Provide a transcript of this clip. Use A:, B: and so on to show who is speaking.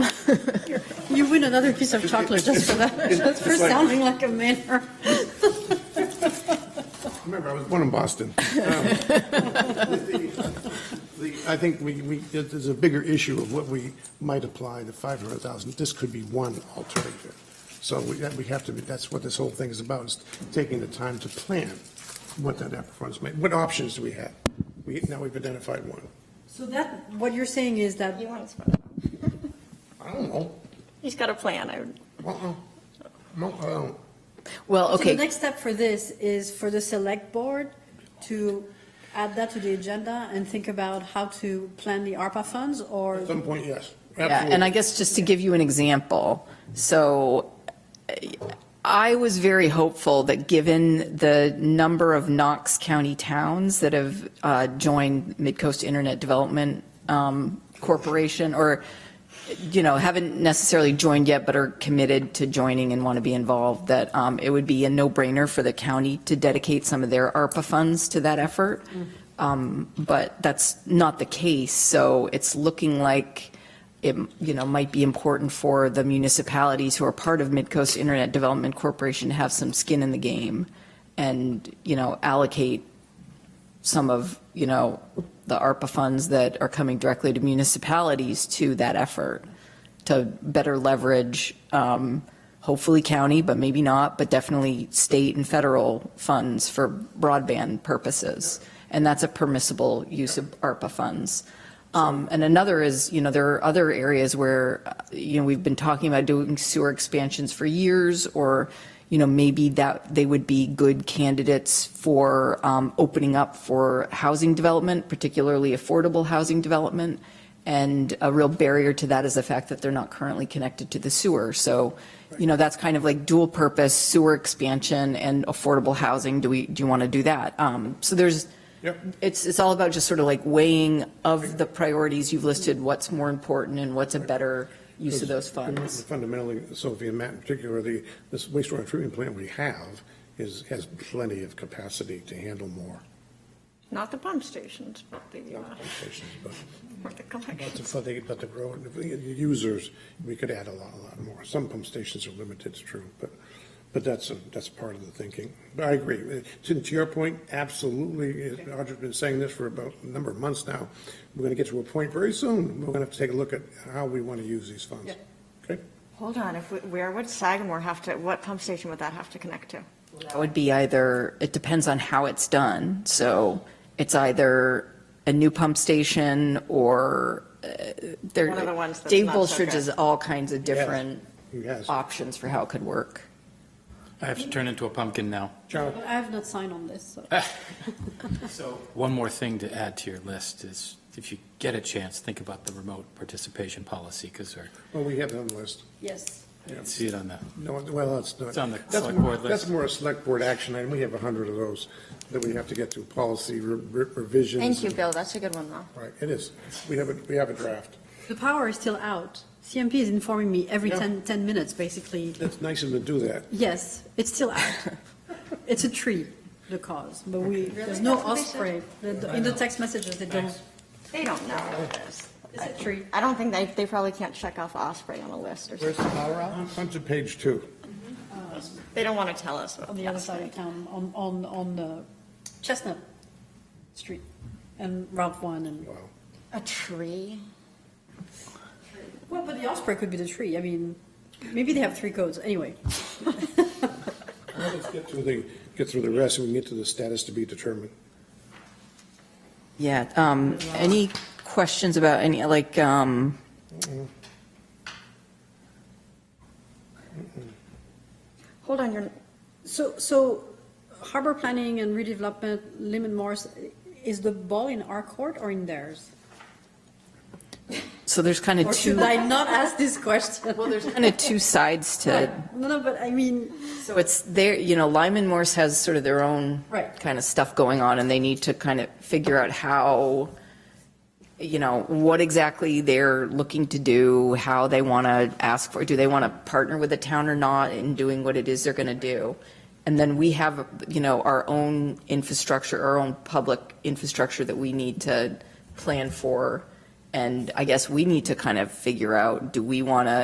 A: open another piece of chocolate just for that, just for
B: It's like-
A: sounding like a mayor.
B: Remember, I was born in Boston. Um, the- the- I think we, we, there's a bigger issue of what we might apply to 500,000. This could be one alternative. So we, that- we have to, be- that's what this whole thing is about, is taking the time to plan what that performance may, what options do we have? We, now we've identified one.
A: So that, what you're saying is that,
C: You want to spend it.
B: I don't know.
C: He's got a plan. I would-
B: Uh-uh. No, uh, I don't.
D: Well,
A: so the
D: okay,
A: next step for this is for the select board to add that to the agenda and think about how to plan the ARPA funds or
B: At some point, yes.
D: yeah, and I guess just to give you an example, so uh, I was very hopeful that given the number of Knox County towns that have uh, joined Midcoast Internet Development um, Corporation, or, you know, haven't necessarily joined yet, but are committed to joining and want to be involved, that um, it would be a no-brainer for the county to dedicate some of their ARPA funds to that effort. Um, But that's not the case, so it's looking like it, you know, might be important for the municipalities who are part of Midcoast Internet Development Corporation to have some skin in the game and, you know, allocate some of, you know, the ARPA funds that are coming directly to municipalities to that effort to better leverage, um, hopefully county, but maybe not, but definitely state and federal funds for broadband purposes. And that's a permissible use of ARPA funds. Um, And another is, you know, there are other areas where, uh, you know, we've been talking about doing sewer expansions for years, or, you know, maybe that they would be good candidates for um, opening up for housing development, particularly affordable housing development. And a real barrier to that is the fact that they're not currently connected to the sewer. So, you know, that's kind of like dual purpose sewer expansion and affordable housing. Do we, do you want to do that? Um, So there's,
B: Yep.
D: it's, it's all about just sort of like weighing of the priorities you've listed, what's more important and what's a better use of those funds.
B: Fundamentally, Sophie and Matt in particular, the, this wastewater treatment plant we have is, has plenty of capacity to handle more.
C: Not the pump stations, but the, uh,
B: applications, But
C: or the
B: but the,
C: collections.
B: but the, but the grow, the users, we could add a lot, a lot more. Some pump stations are limited, it's true, but, but that's, a- that's part of the thinking. But I agree. Uh, To, to your point, absolutely, Audrey's been saying this for about a number of months now. We're gonna get to a point very soon, we're gonna have to take a look at how we want to use these funds. Okay?
C: Hold on, if, we- where would Sagamore have to, what pump station would that have to connect to?
D: That would be either, it depends on how it's done. So it's either a new pump station or uh, there.
C: One of the ones that's
D: Dave
C: not so
D: Bolstridge
C: good.
D: has all kinds of different
B: He has.
D: options for how it could work.
E: I have to turn into a pumpkin now.
B: Ciao.
A: I have not signed on this, so.
E: So one more thing to add to your list is, if you get a chance, think about the remote participation policy, because
B: Well, we have it on the list.
A: Yes.
E: I see it on the,
B: No, well, that's not.
E: It's on the
B: that's
E: select
B: more-
E: board list.
B: That's more a select board action item. We have a hundred of those that we have to get through policy re- re- revisions.
C: Thank you,
B: and-
C: Bill. That's a good one, though.
B: Right, it is. We have a, we have a draft.
A: The power is still out. CMP is informing me every
B: Yeah.
A: 10, 10 minutes, basically.
B: That's nice of them to do that.
A: Yes, it's still out. It's a tree, the cause, but we, there's no
C: That's what they said?
A: osprey. The- In the text messages, they don't,
C: They don't know about this.
A: it's a tree.
C: I don't think they, they probably can't check off Osprey on a list or
B: Where's
C: something. Mm-hmm.
B: the power on? Onto page two.
C: They don't want to tell us.
A: on the other side of town, on, on, on the Chestnut Street and Route One and.
B: Wow.
C: A tree?
A: Well, but the Osprey could be the tree, I mean, maybe they have three codes, anyway.
B: Well, Let's get through the, get through the rest and we can get to the status to be determined.
D: Yeah, um, any questions about any, like, um,
C: Hold on, you're,
A: So, so harbor planning and redevelopment, Lehman Morris, is the ball in our court or in theirs?
D: so there's kind of
A: Or
D: two,
A: should I not ask this question? Well, there's.
D: kind of two sides to
A: No, no, but I mean,
D: So it's there, you know, Lyman Morse has sort of their own
A: Right.
D: kind of stuff going on, and they need to kind of figure out how, you know, what exactly they're looking to do, how they want to ask for, do they want to partner with the town or not in doing what it is they're going to do? And then we have, you know, our own infrastructure, our own public infrastructure that we need to plan for. And I guess we need to kind of figure out, do we want to